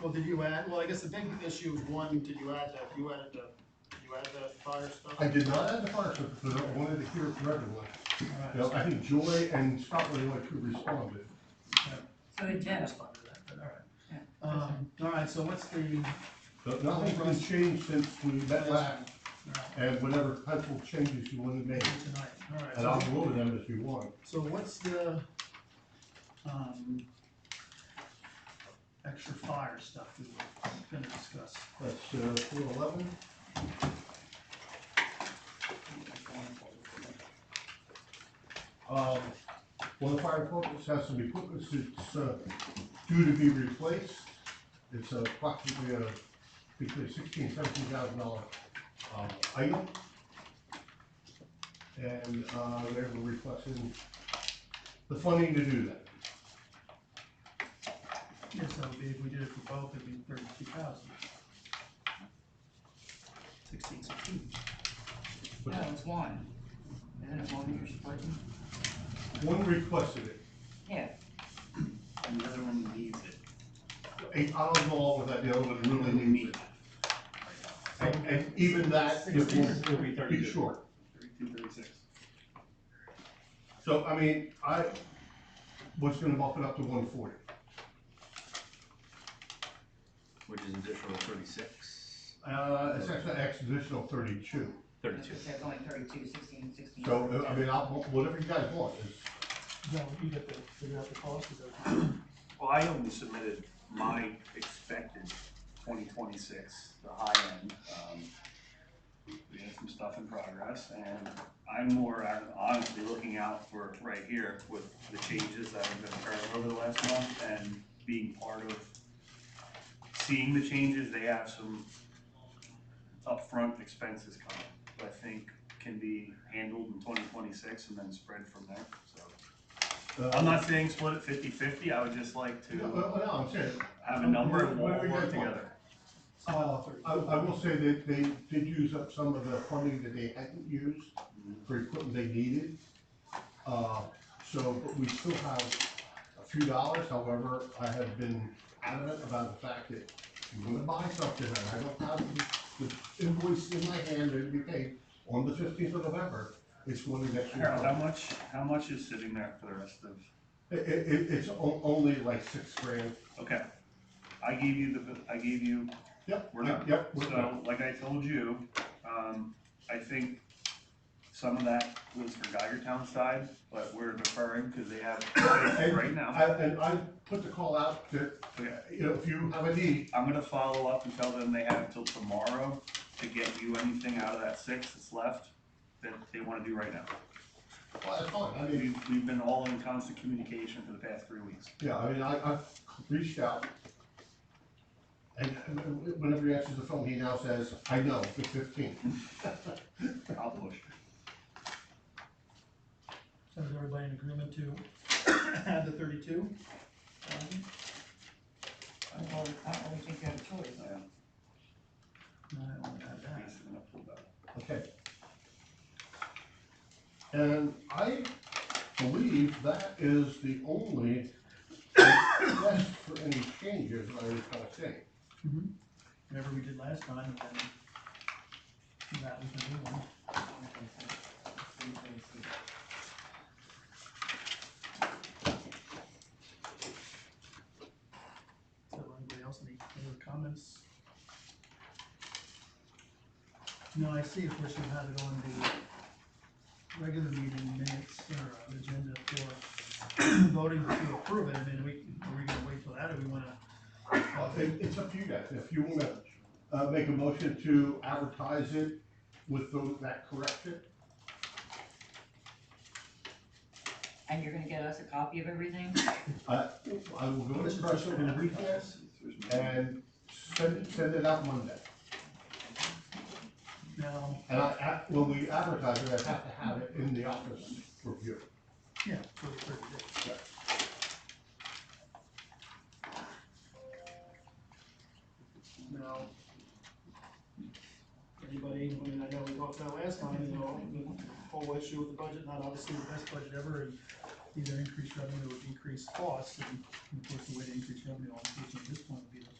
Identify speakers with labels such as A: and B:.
A: Well, did you add, well, I guess the big issue is one, did you add that, you added the, you added the fire stuff?
B: I did not add the fire truck, because I wanted to hear it from everyone. You know, I think Joy and Scott really like to respond, but
C: So it did.
A: That's fine with that, but all right. Um, all right, so what's the,
B: But nothing's been changed since we met last,
A: all right,
B: and whatever potential changes you wanted made,
A: tonight, all right.
B: and I'll go over them if you want.
A: So what's the, um, extra fire stuff we were gonna discuss?
B: That's, uh, four eleven. Um, one of the fire departments has some equipment that's, uh, due to be replaced. It's approximately a, between sixteen, seventeen thousand dollar, um, item. And, uh, they're requesting the funding to do that.
A: Yes, that would be, if we did it for both, it'd be thirty-two thousand. Sixteen, sixteen.
C: No, it's one. Isn't it one that you're splitting?
B: One requested it.
C: Yeah.
D: And the other one needs it.
B: I- I'll go along with that, the other one really needs it. And, and even that, it will
D: It'll be
B: be
D: thirty-two,
B: short.
D: thirty-two, thirty-six.
B: So, I mean, I was gonna bump it up to one forty.
E: which is additional thirty-six,
B: Uh, it's actually an additional thirty-two.
E: thirty-two.
C: That's only thirty-two, sixteen, sixteen.
B: So, uh, I mean, I'll, whatever you guys want is,
A: No, you have to figure out the cost of that.
D: Well, I only submitted my expected twenty twenty-six, the high end. Um, We have some stuff in progress, and I'm more I'm honestly looking out for right here with the changes that have been occurring over the last month and being part of seeing the changes, they have some upfront expenses coming, that I think can be handled in twenty twenty-six and then spread from there, so. I'm
B: uh,
D: not saying split it 50 50. I would just like
B: no,
D: to
B: no, no, I'm serious.
D: have a number and we'll
B: Where- where
D: all
B: you
D: work
B: guys want?
D: together.
B: Uh, I, I will say that they did use up some of the funding that they hadn't used for equipment they needed. Uh, so, but we still have a few dollars, however, I have been adamant about the fact that I'm gonna buy something, and I don't have the the invoice in my hand to be paid on the fifteenth of November, it's one of the next
D: Harold, how
B: year.
D: much, how much is sitting there for the rest of,
B: It, it, it- it's o- only like six grand.
D: okay. I gave you the, I gave you,
B: Yep,
D: We're not.
B: Yep, we're not.
D: so like I told you, um, I think some of that was for Geigertown side, but we're deferring because they have right now.
B: I, and I put the call out that,
D: Okay.
B: you know, if you have a need,
D: I'm gonna follow up and tell them they have until tomorrow to get you anything out of that six that's left that they wanna do right now.
B: well, oh, that's fine, I mean,
D: We've, we've been all in constant communication for the past three weeks.
B: Yeah, I mean, I, I've reached out. And and whenever he answers the phone, he now says, I know, the fifteenth.
D: I'll push.
A: So is everybody in agreement to add the thirty-two?
C: I don't really- I don't really think you have a choice.
D: Yeah.
A: No, I don't add that.
D: He's gonna pull that.
B: Okay. And I believe that is the only request for any changes I was gonna say.
A: Whatever we did last time, and then that was the new one. So anybody else any other comments? No, I see, of course, you have it on the regular meeting minutes or uh, agenda for voting to approve it, I mean, we, are we gonna wait till that, or we wanna?
B: Uh, it, it's up to you guys, if you wanna, uh, make a motion to advertise it with those, that correction.
C: And you're gonna get us a copy of everything?
B: I, Uh, I will go to the press over the weekend, and send, it- send it out Monday.
A: Now,
B: And I, I- when we advertise it, I have to have it in the office for review.
A: yeah, for thirty days. Now, anybody, I mean, I know we talked about last time, you know, the whole issue with the budget, not obviously the best budget ever, and either increase revenue or decrease costs, and of course, the way to increase revenue, obviously, at this point, would be to